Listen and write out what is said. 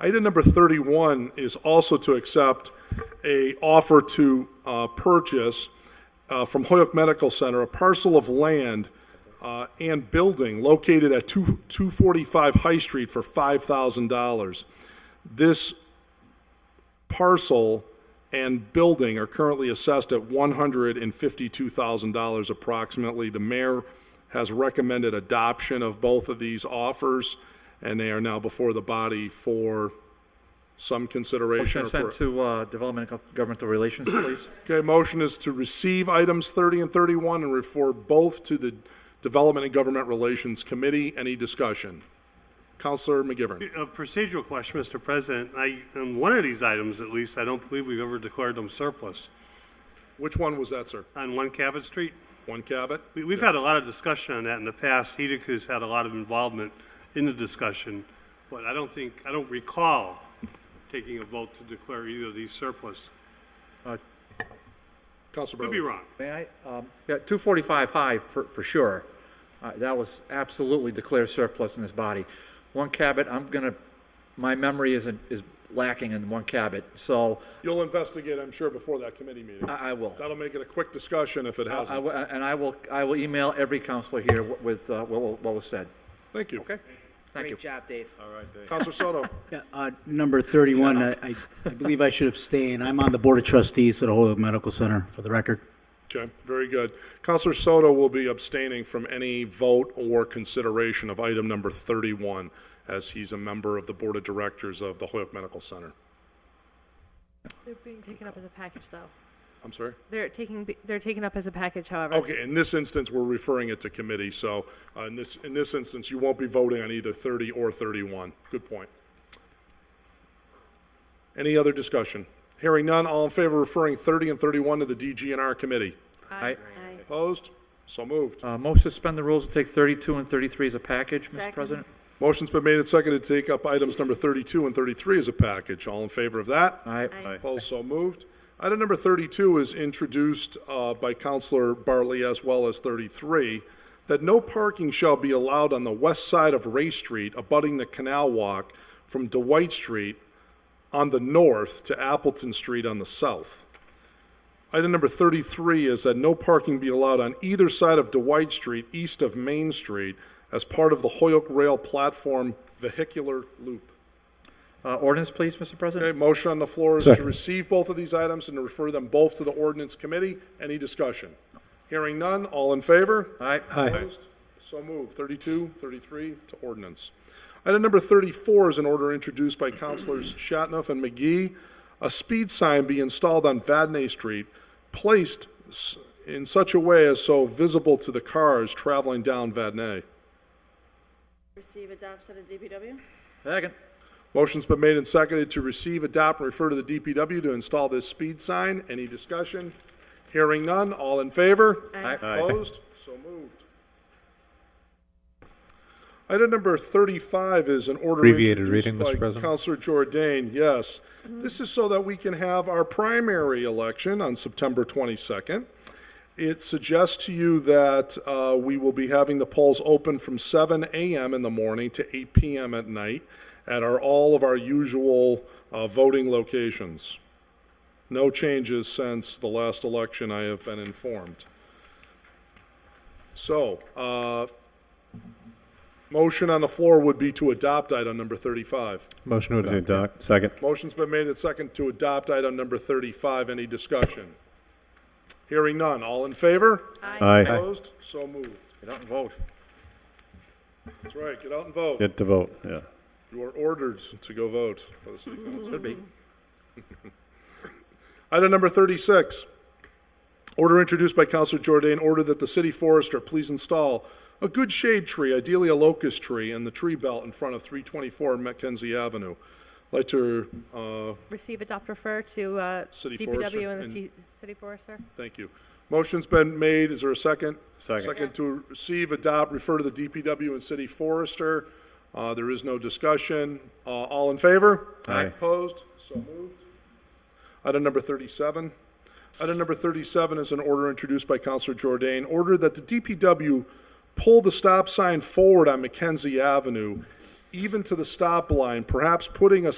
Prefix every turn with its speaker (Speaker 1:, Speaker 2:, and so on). Speaker 1: Item number 31 is also to accept a offer to uh, purchase uh, from Hoyok Medical Center a parcel of land uh, and building located at 2 245 High Street for $5,000. This parcel and building are currently assessed at $152,000 approximately. The mayor has recommended adoption of both of these offers, and they are now before the body for some consideration.
Speaker 2: Motion
Speaker 1: or
Speaker 2: to
Speaker 1: per-
Speaker 2: send to uh, Development and Governmental Relations, please.
Speaker 1: Okay, motion is to receive items 30 and 31 and refer both to the Development and Government Relations Committee. Any discussion? Counselor McGivern.
Speaker 3: A procedural question, Mr. President. I, on one of these items at least, I don't believe we've ever declared them surplus.
Speaker 1: Which one was that, sir?
Speaker 3: On One Cabot Street,
Speaker 1: One Cabot?
Speaker 3: we, we've had a lot of discussion on that in the past. Hedeca's had a lot of involvement in the discussion, but I don't think, I don't recall taking a vote to declare either of these surplus.
Speaker 1: Counselor
Speaker 3: Could
Speaker 1: Bartley.
Speaker 3: be wrong.
Speaker 2: May I? Um, Yeah, 245 high, for, for sure. Uh, That was absolutely declared surplus in this body. One Cabot, I'm gonna, my memory isn't, is lacking in one Cabot, so
Speaker 1: You'll investigate, I'm sure, before that committee meeting.
Speaker 2: I I will.
Speaker 1: That'll make it a quick discussion if it
Speaker 2: I
Speaker 1: hasn't.
Speaker 2: will- And I will, I will email every counselor here wi- with uh, what wa- what was said.
Speaker 1: Thank you. Okay.
Speaker 2: Thank you.
Speaker 4: Great job, Dave.
Speaker 1: Counselor Soto.
Speaker 5: Yeah, uh, Number 31, I- I I believe I should abstain. I'm on the Board of Trustees at the Holyoke Medical Center, for the record.
Speaker 1: Okay, very good. Counselor Soto will be abstaining from any vote or consideration of item number 31, as he's a member of the Board of Directors of the Hoyok Medical Center.
Speaker 6: They're being taken up as a package, though.
Speaker 1: I'm sorry?
Speaker 6: They're taking, they're taken up as a package, however.
Speaker 1: Okay, in this instance, we're referring it to committee, so uh, in this, in this instance, you won't be voting on either 30 or 31. Good point. Any other discussion? Hearing none, all in favor of referring 30 and 31 to the DGNR committee?
Speaker 2: Aye.
Speaker 1: Opposed? So moved.
Speaker 2: Uh, Motion to suspend the rules and take 32 and 33 as a package, Mr.
Speaker 6: Second.
Speaker 2: President.
Speaker 1: Motion's been made and seconded to take up items number 32 and 33 as a package. All in favor of that?
Speaker 2: Aye.
Speaker 1: Opposed, so moved. Item number 32 is introduced uh, by Counselor Bartley as well as 33, that no parking shall be allowed on the west side of Ray Street abutting the Canal Walk from Dwight Street on the north to Appleton Street on the south. Item number 33 is that no parking be allowed on either side of Dwight Street east of Main Street as part of the Hoyok Rail Platform Vehicular Loop.
Speaker 2: Uh, Ordinance, please, Mr. President.
Speaker 1: Okay, motion on the floor is to receive both of these items and to refer them both to the ordinance committee. Any discussion? Hearing none, all in favor?
Speaker 2: Aye.
Speaker 1: Opposed? So moved. 32, 33 to ordinance. Item number 34 is an order introduced by Councilors Shatnoff and McGee. A speed sign be installed on Vadney Street, placed s- in such a way as so visible to the cars traveling down Vadney.
Speaker 6: Receive, adopt, send to DPW?
Speaker 2: Second.
Speaker 1: Motion's been made and seconded to receive, adopt, and refer to the DPW to install this speed sign. Any discussion? Hearing none, all in favor?
Speaker 2: Aye.
Speaker 1: Opposed? So moved. Item number 35 is an order
Speaker 7: Abbreviated
Speaker 1: introduced
Speaker 7: reading, Mr.
Speaker 1: by
Speaker 7: President.
Speaker 1: Counselor Jordan, yes. This is so that we can have our primary election on September 22nd. It suggests to you that uh, we will be having the polls open from 7 a.m. in the morning to 8 p.m. at night at our, all of our usual uh, voting locations. No changes since the last election, I have been informed. So, uh, motion on the floor would be to adopt item number 35.
Speaker 7: Motion to adopt. Second.
Speaker 1: Motion's been made and second to adopt item number 35. Any discussion? Hearing none. All in favor?
Speaker 7: Aye.
Speaker 1: Opposed? So moved.
Speaker 2: Get out and vote.
Speaker 1: That's right. Get out and vote.
Speaker 7: Get to vote, yeah.
Speaker 1: You are ordered to go vote by the city council.
Speaker 2: Should be.
Speaker 1: Item number 36, order introduced by Counselor Jordan, order that the city forester please install a good shade tree, ideally a locust tree, in the tree belt in front of 324 Mackenzie Avenue. Like to, uh,
Speaker 6: Receive, adopt, refer to, uh,
Speaker 1: City forester
Speaker 6: DPW and the
Speaker 1: and-
Speaker 6: ci- city forester.
Speaker 1: thank you. Motion's been made, is there a second?
Speaker 7: Second.
Speaker 1: Second to receive, adopt, refer to the DPW and city forester. Uh, There is no discussion. Uh, All in favor?
Speaker 7: Aye.
Speaker 1: Opposed? So moved. Item number 37. Item number 37 is an order introduced by Counselor Jordan, order that the DPW pull the stop sign forward on Mackenzie Avenue, even to the stop line, perhaps putting a